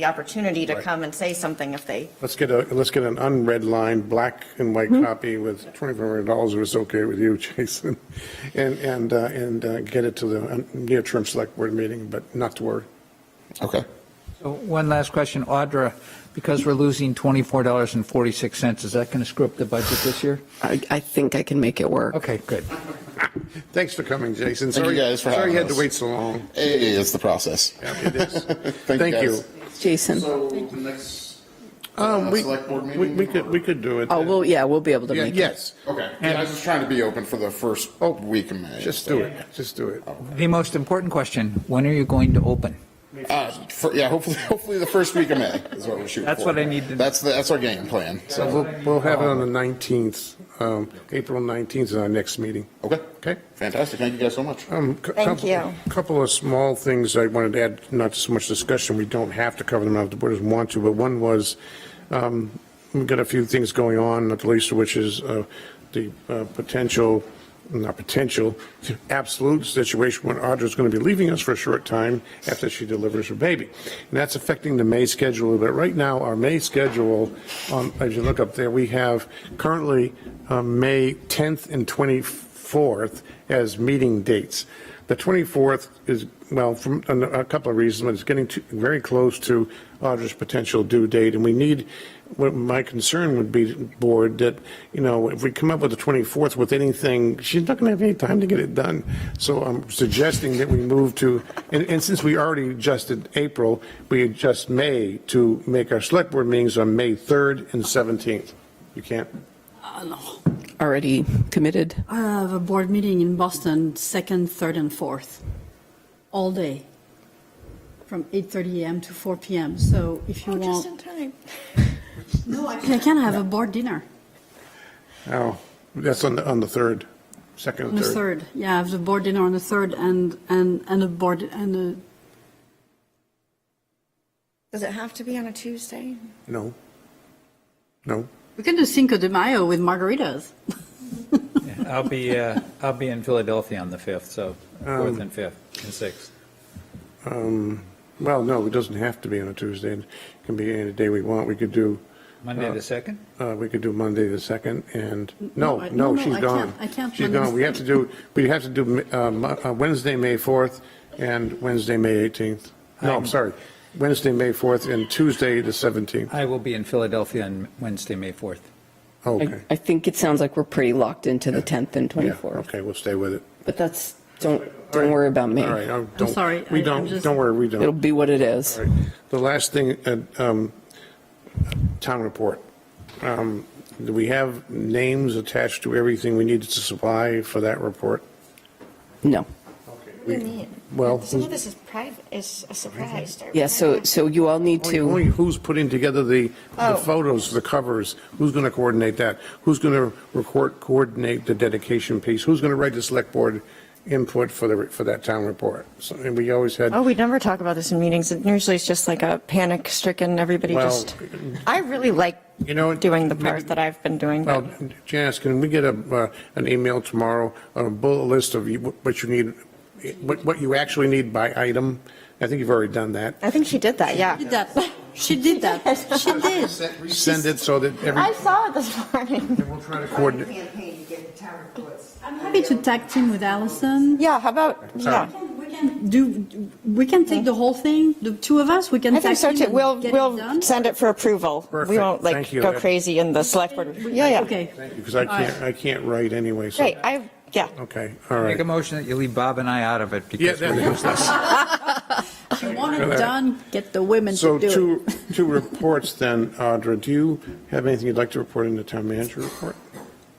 the opportunity to Right. come and say something if they, Let's get a, let's get an unread line, black and white copy with $2,500 if it's okay with you, Jason. And, and, uh, and uh, get it to the uh, near-term select board meeting, but not to worry. Okay. So One last question, Audra, because we're losing $24.46, is that going to screw up the budget this year? I, I think I can make it work. Okay, good. Thanks for coming, Jason. Thank you Sorry- guys for Sorry having you had to us. wait so long. It is the process. Yeah, it is. Thank you, Thank you. guys. Jason, So next, Um, we, select board we- we could, we could do it. oh, well, yeah, we'll be able to Yeah, make it. Yes, Okay, yeah, I was just trying to be open for the first week of May. just so. do it, just do it. The most important question, when are you going to open? Uh, for, yeah, hopefully, hopefully the first week of May is what we're shooting That's for. what I need to- That's, the- that's our game plan, So so, We'll, we'll have it on the 19th, um, April 19th is our next meeting. okay, Okay? fantastic, thank you guys so much. Um, cou- Thank couple- you. Couple of small things I wanted to add, not so much discussion, we don't have to cover them out if the board doesn't want to, but one was, um, we've got a few things going on, not the least of which is uh, the uh, potential, not potential, absolute situation when Audra's going to be leaving us for a short time after she delivers her baby. And that's affecting the May schedule a little bit. Right now, our May schedule, um, as you look up there, we have currently um, May 10th and 24th as meeting dates. The 24th is, well, from a a couple of reasons, but it's getting too- very close to Audra's potential due date, and we need, what my concern would be, board, that, you know, if we come up with the 24th with anything, she's not going to have any time to get it done. So I'm suggesting that we move to, and, and since we already adjusted April, we adjust May to make our select board meetings on May 3rd and 17th. You can't, Already committed. I have a board meeting in Boston, second, third, and fourth, all day, from 8:30 AM to 4 PM. So if you oh, just in want, time. no, actually, I can have a board dinner oh, that's on the, on the 3rd, 2nd on and the 3rd. third. Yeah, I have the board dinner on the third and, and, and a board, and a, Does it have to be on a Tuesday? No. No. we can do Cinco de Mayo with margaritas. I'll be, uh, I'll be in Philadelphia on the 5th, so 4th and 5th and 6th. Um, Well, no, it doesn't have to be on a Tuesday. It can be any day we want. We could do, Monday the 2nd? uh, we could do Monday the 2nd and, no, no, I- no, no, she's I can't- gone. I can't She's Monday gone. the We have to do, we have to do uh, Mo- uh, Wednesday, May 4th and Wednesday, May 18th. No, I'm sorry. Wednesday, May 4th and Tuesday, the 17th. I will be in Philadelphia on Wednesday, May 4th. Okay. I, I think it sounds like we're pretty locked into the 10th and Yeah, 24th. Okay, we'll stay with it. But that's, don't, don't worry about me. All right, oh, don't- sorry, I- We I'm don't, just- don't worry, we don't. It'll be what it is. All right. The last thing, uh, um, town report. Um, Do we have names attached to everything we needed to supply for that report? No. What do you mean? Well, Some of this is private, is a surprise. to Yeah, so, everybody. so you all need only- only to, who's putting together the the Oh. photos, the covers? Who's going to coordinate that? Who's going to record, coordinate the dedication piece? Who's going to write the select board input for the, for that town report? So, and we always had, Oh, we never talk about this in meetings. And Usually it's just like a panic stricken, everybody Well, just, I really like You know, doing the maybe- part that I've been doing. but- Well, Janice, can we get a, uh, an email tomorrow on a bullet list of you- what you need, what, what you actually need by item? I think you've already done that. I think she did that, yeah. Did that, she did that, she did. Send it so that every, I saw it this morning. we'll try to coordinate. campaign to get town reports. I'm happy to tag team with Allison. Yeah, how about, yeah. We can do, we can take the whole thing, the two of us, we can I think tag so team too. and We'll, get it we'll done. send it for approval. We Perfect. won't like Thank you. go crazy in the select board. Yeah, yeah. Okay. Because I can't, I can't write anyway, so. Great, I, yeah. Okay, all Make right. a motion that you leave Bob and I out of it Yeah, because that we're was less. You want Right. it done, get the women So to do it. two, two reports then, Audra. Do you have anything you'd like to report in the town manager report?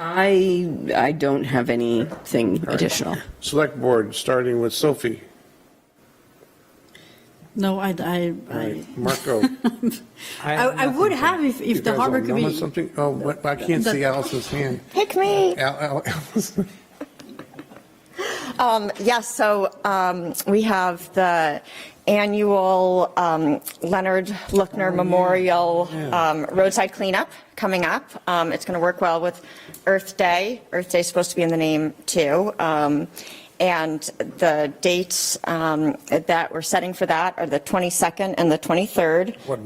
I, I don't have anything additional. Select board, starting with Sophie. No, I, I, All I, right, Marco. I, have I would have if, You if guys the all harbor know could be. Something, oh, what- I can't see Allison's hand. Pick me. Al- Al- Allison. Um, Yes, so um, we have the annual um, Leonard Lookner Memorial um, Roadside Cleanup coming up. Um, It's going to work well with Earth Day. Earth Day's supposed to be in the name, too. Um, And the dates um, that we're setting for that are the 22nd and the 23rd.